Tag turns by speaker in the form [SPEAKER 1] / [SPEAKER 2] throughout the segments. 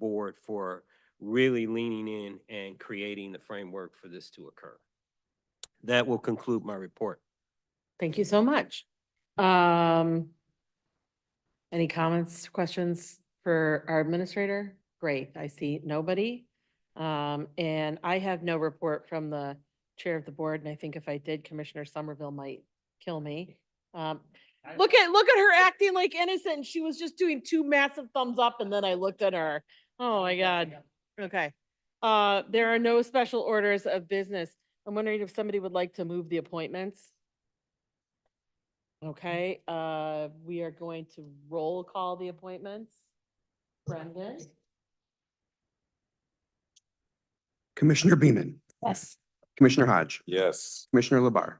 [SPEAKER 1] board for really leaning in and creating the framework for this to occur. That will conclude my report.
[SPEAKER 2] Thank you so much. Um, any comments, questions for our administrator? Great, I see nobody. Um, and I have no report from the chair of the board, and I think if I did, Commissioner Somerville might kill me. Um, look at, look at her acting like innocent. She was just doing two massive thumbs up and then I looked at her. Oh my God. Okay. Uh, there are no special orders of business. I'm wondering if somebody would like to move the appointments? Mm-hmm. Okay, uh, we are going to roll call the appointments. Brendan?
[SPEAKER 3] Commissioner Beaman,
[SPEAKER 2] Yes.
[SPEAKER 3] Commissioner Hodge,
[SPEAKER 4] Yes.
[SPEAKER 3] Commissioner Labar,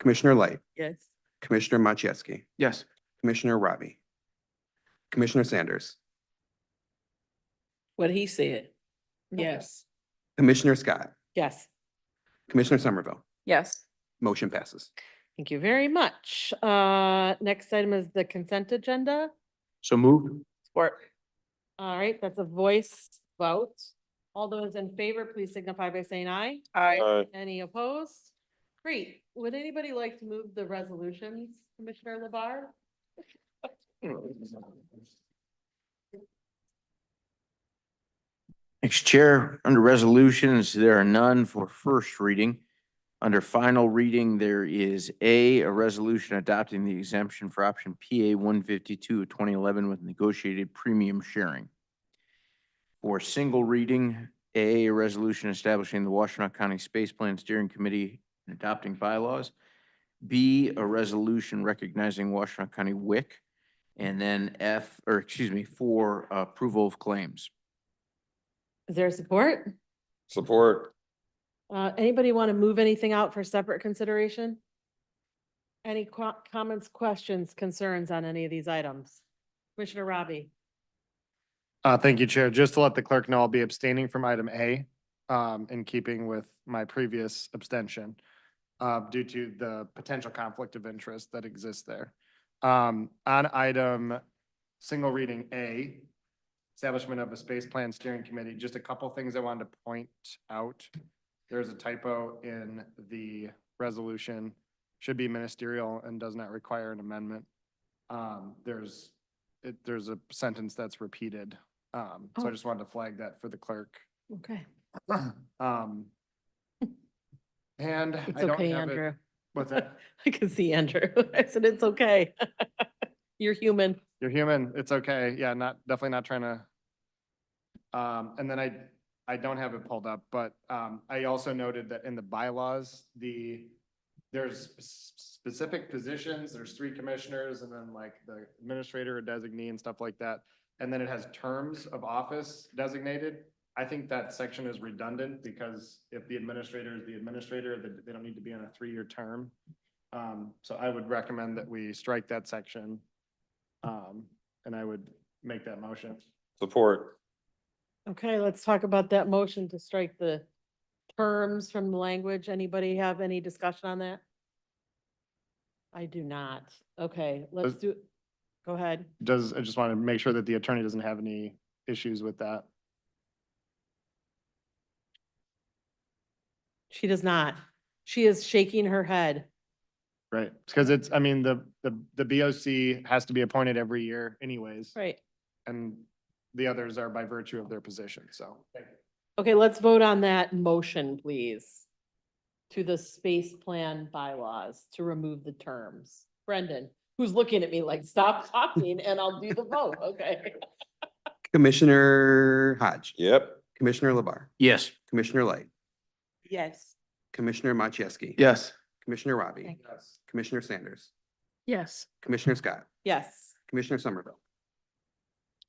[SPEAKER 3] Commissioner Light,
[SPEAKER 2] Yes.
[SPEAKER 3] Commissioner Machewski,
[SPEAKER 4] Yes.
[SPEAKER 3] Commissioner Robbie, Commissioner Sanders,
[SPEAKER 5] What he said. Yes.
[SPEAKER 3] Commissioner Scott,
[SPEAKER 2] Yes,
[SPEAKER 3] Commissioner Somerville.
[SPEAKER 5] Yes.
[SPEAKER 3] Motion passes.
[SPEAKER 2] thank you very much. Uh, next item is the consent agenda.
[SPEAKER 4] So moved.
[SPEAKER 5] Support.
[SPEAKER 2] All right, that's a voice vote. All those in favor, please signify by saying aye.
[SPEAKER 5] Aye.
[SPEAKER 2] Any opposed? Great. Would anybody like to move the resolutions, Commissioner Labar?
[SPEAKER 6] Thanks, Chair. Under resolutions, there are none for first reading. Under final reading, there is A, a resolution adopting the exemption for option PA one fifty-two of twenty eleven with negotiated premium sharing. For single reading, A, a resolution establishing the Washtenaw County Space Plan Steering Committee and adopting bylaws. B, a resolution recognizing Washtenaw County WIC. And then F, or excuse me, for approval of claims.
[SPEAKER 2] Is there support?
[SPEAKER 4] Support.
[SPEAKER 2] Uh, anybody want to move anything out for separate consideration? Any qu- comments, questions, concerns on any of these items? Commissioner Robbie?
[SPEAKER 7] Uh, thank you, Chair. Just to let the clerk know, I'll be abstaining from item A, um, in keeping with my previous abstention, uh, due to the potential conflict of interest that exists there. Um, on item, single reading A, establishment of a space plan steering committee, just a couple things I wanted to point out. There's a typo in the resolution, should be ministerial and does not require an amendment. Um, there's, it, there's a sentence that's repeated um, so
[SPEAKER 2] Oh.
[SPEAKER 7] I just wanted to flag that for the clerk.
[SPEAKER 2] Okay.
[SPEAKER 7] Um, and
[SPEAKER 2] It's
[SPEAKER 7] I don't
[SPEAKER 2] okay,
[SPEAKER 7] have it.
[SPEAKER 2] Andrew.
[SPEAKER 7] What's that?
[SPEAKER 2] I can see Andrew. I said, it's okay. You're human.
[SPEAKER 7] You're human. It's okay. Yeah, not, definitely not trying to. Um, and then I, I don't have it pulled up, but, um, I also noted that in the bylaws, the, there's s- specific positions, there's three commissioners and then like the administrator or designee and stuff like that. And then it has terms of office designated. I think that section is redundant because if the administrator is the administrator, then they don't need to be on a three-year term. Um, so I would recommend that we strike that section. Um, and I would make that motion.
[SPEAKER 4] Support.
[SPEAKER 2] Okay, let's talk about that motion to strike the terms from the language. Anybody have any discussion on that? I do not. Okay, let's
[SPEAKER 7] Does-
[SPEAKER 2] do, go ahead.
[SPEAKER 7] Does, I just want to make sure that the attorney doesn't have any issues with that.
[SPEAKER 2] She does not. She is shaking her head.
[SPEAKER 7] Right, because it's, I mean, the, the, the BOC has to be appointed every year anyways.
[SPEAKER 2] Right.
[SPEAKER 7] And the others are by virtue of their position, so.
[SPEAKER 2] Okay, let's vote on that motion, please. To the space plan bylaws to remove the terms. Brendan, who's looking at me like, stop talking and I'll do the vote, okay?
[SPEAKER 3] Commissioner Hodge,
[SPEAKER 4] Yep.
[SPEAKER 3] Commissioner Labar,
[SPEAKER 6] Yes.
[SPEAKER 3] Commissioner Light,
[SPEAKER 5] Yes.
[SPEAKER 3] Commissioner Machewski.
[SPEAKER 4] Yes.
[SPEAKER 3] Commissioner Robbie, Commissioner Sanders,
[SPEAKER 5] Yes.
[SPEAKER 3] Commissioner Scott,
[SPEAKER 2] Yes.
[SPEAKER 3] Commissioner Somerville,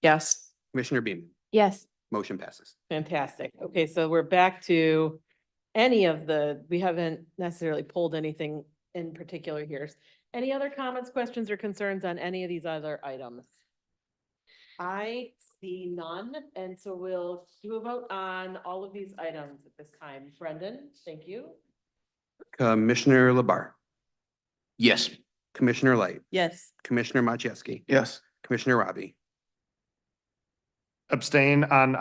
[SPEAKER 5] Yes.
[SPEAKER 3] Commissioner Beaman.
[SPEAKER 5] Yes.
[SPEAKER 3] Motion passes.
[SPEAKER 2] Fantastic. Okay, so we're back to any of the, we haven't necessarily pulled anything in particular here. Any other comments, questions, or concerns on any of these other items? I see none, and so we'll do a vote on all of these items at this time. Brendan, thank you.
[SPEAKER 3] Commissioner Labar,
[SPEAKER 6] Yes.
[SPEAKER 3] Commissioner Light,
[SPEAKER 5] Yes.
[SPEAKER 3] Commissioner Machewski,
[SPEAKER 4] Yes.
[SPEAKER 3] Commissioner Robbie,
[SPEAKER 7] abstain on